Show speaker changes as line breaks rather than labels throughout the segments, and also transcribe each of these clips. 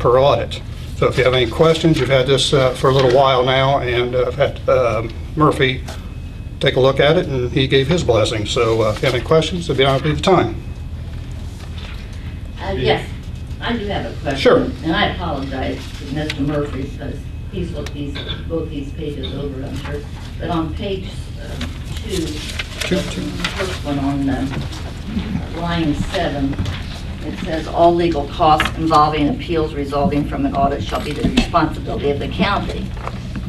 per audit. So if you have any questions, you've had this uh, for a little while now, and uh, I've had um, Murphy take a look at it, and he gave his blessing. So uh, if you have any questions, it'd be out of the time.
Uh, Yes, I do have a question.
Sure.
And I apologize to Mr. Murphy because he's looked these, both these pages over, I'm sure. But on page um, two, the first one on um, line seven, it says, "All legal costs involving appeals resulting from an audit shall be the responsibility of the county."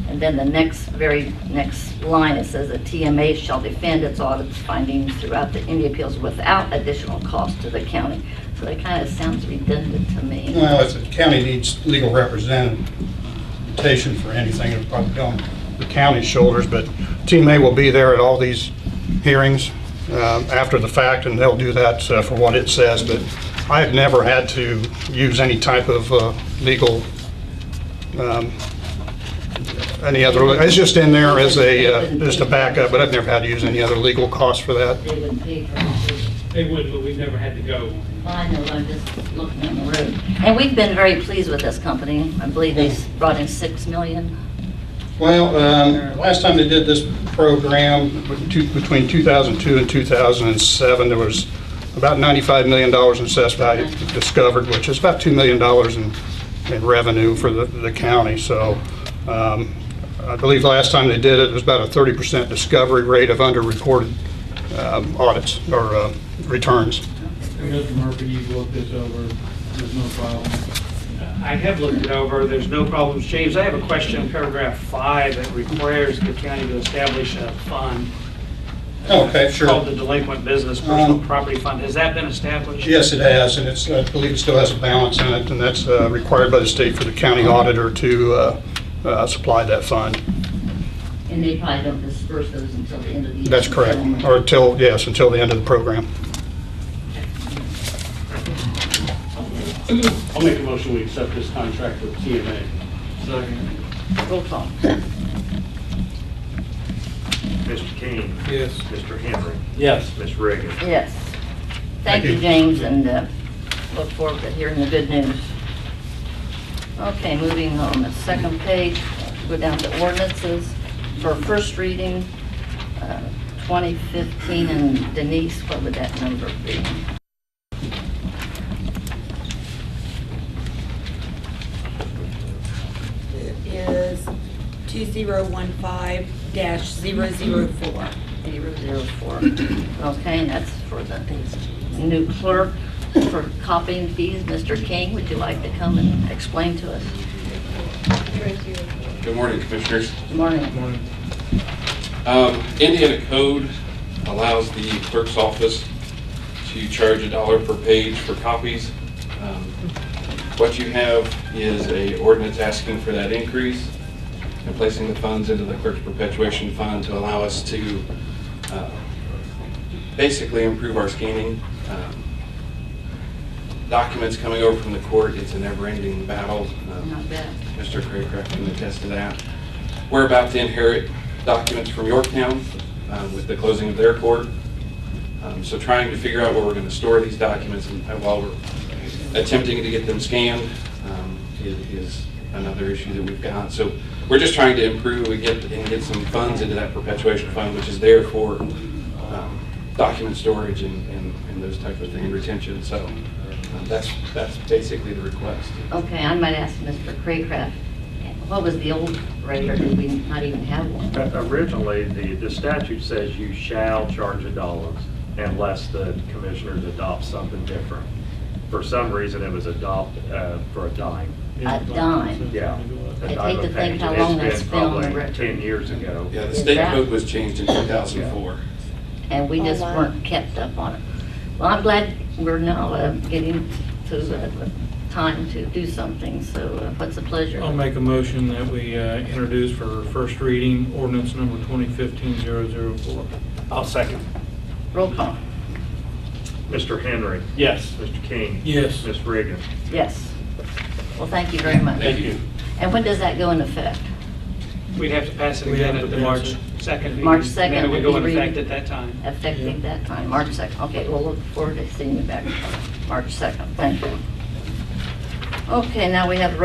And then the next, very next line, it says that TMA shall defend its audit's findings throughout the, any appeals without additional cost to the county. So that kind of sounds redundant to me.
Well, if the county needs legal representation for anything, it'll probably be on the county's shoulders, but Team A will be there at all these hearings um, after the fact, and they'll do that uh, for what it says, but I have never had to use any type of uh, legal, um, any other, it's just in there as a, uh, just a backup, but I've never had to use any other legal cost for that.
They wouldn't pay for it.
They would, but we've never had to go.
I know, I'm just looking in the room. And we've been very pleased with this company. I believe they brought in six million.
Well, um, last time they did this program, two- between 2002 and 2007, there was about $95 million in assessed value discovered, which is about $2 million in, in revenue for the, the county. So um, I believe last time they did it, it was about a 30% discovery rate of underreported um, audits or uh, returns.
Mr. Murphy, you've looked this over, there's no problem.
I have looked it over, there's no problems. James, I have a question, paragraph five, it requires the county to establish a fund.
Okay,
It's Called the Delinquent Business Personal
Um,
Property Fund. Has that been established?
Yes, it has, and it's, I believe it still has a balance in it, and that's uh, required by the state for the county auditor to uh, uh, supply that fund.
And they probably don't disperse those until the end of the year.
That's correct, or until, yes, until the end of the program.
I'll make a motion, we accept this contract with TMA.
Second.
Roll call.
Mr. King.
Yes.
Mr. Henry.
Yes.
Ms. Reagan.
Yes. Thank
Thank
you,
you.
James, and uh, look forward to hearing the good news. Okay, moving on, the second page, go down to ordinances for first reading, uh, 2015, and Denise, what would that number be?
It is 2015-004.
004. Okay, and that's for the new clerk for copying fees. Mr. King, would you like to come and explain to us?
Good morning, Commissioners.
Good morning.
Morning.
Um, Indiana code allows the clerk's office to charge a dollar per page for copies. Um, What you have is a ordinance asking for that increase and placing the funds into the clerk's perpetuation fund to allow us to uh, basically improve our scanning. Um, Documents coming over from the court, it's a never-ending battle. Um,
Not bad.
Mr. Craycraft can attest to that. We're about to inherit documents from Yorktown um, with the closing of their court. Um, So trying to figure out where we're going to store these documents and and while we're attempting to get them scanned um, i- is another issue that we've got. So we're just trying to improve and get, and get some funds into that perpetuation fund, which is there for um, document storage and, and and those type of things, retention. So um, that's, that's basically the request.
Okay, I might ask Mr. Craycraft, what was the old rate, or did we not even have one?
Uh, Originally, the, the statute says you shall charge a dollar unless the commissioners adopt something different. For some reason, it was adopt, uh, for a dime.
A dime.
Yeah. a
I'd hate
dime a
to think
page,
how
and it's
long that's been on the
probably
record.
Ten years ago.
Yeah, the
Is
state
that-
code was changed in 2004.
And we just
Oh, wow.
weren't kept up on it. Well, I'm glad we're now uh, getting to the time to do something, so uh, what's the pleasure?
I'll make a motion that we uh, introduce for first reading ordinance number 2015-004.
I'll second.
Roll call.
Mr. Henry.
Yes.
Mr. King.
Yes.
Ms. Reagan.
Yes. Well, thank you very much.
Thank you.
And when does that go into effect?
We'd have to pass it
We
again
have
at the
to pass
March
it.
2nd meeting.
March 2nd
Maybe we
would
go
be
in
re-
effective at that time.
Effective that time, March 2nd. Okay, we'll look forward to seeing you back March 2nd. Thank you. Okay, now we have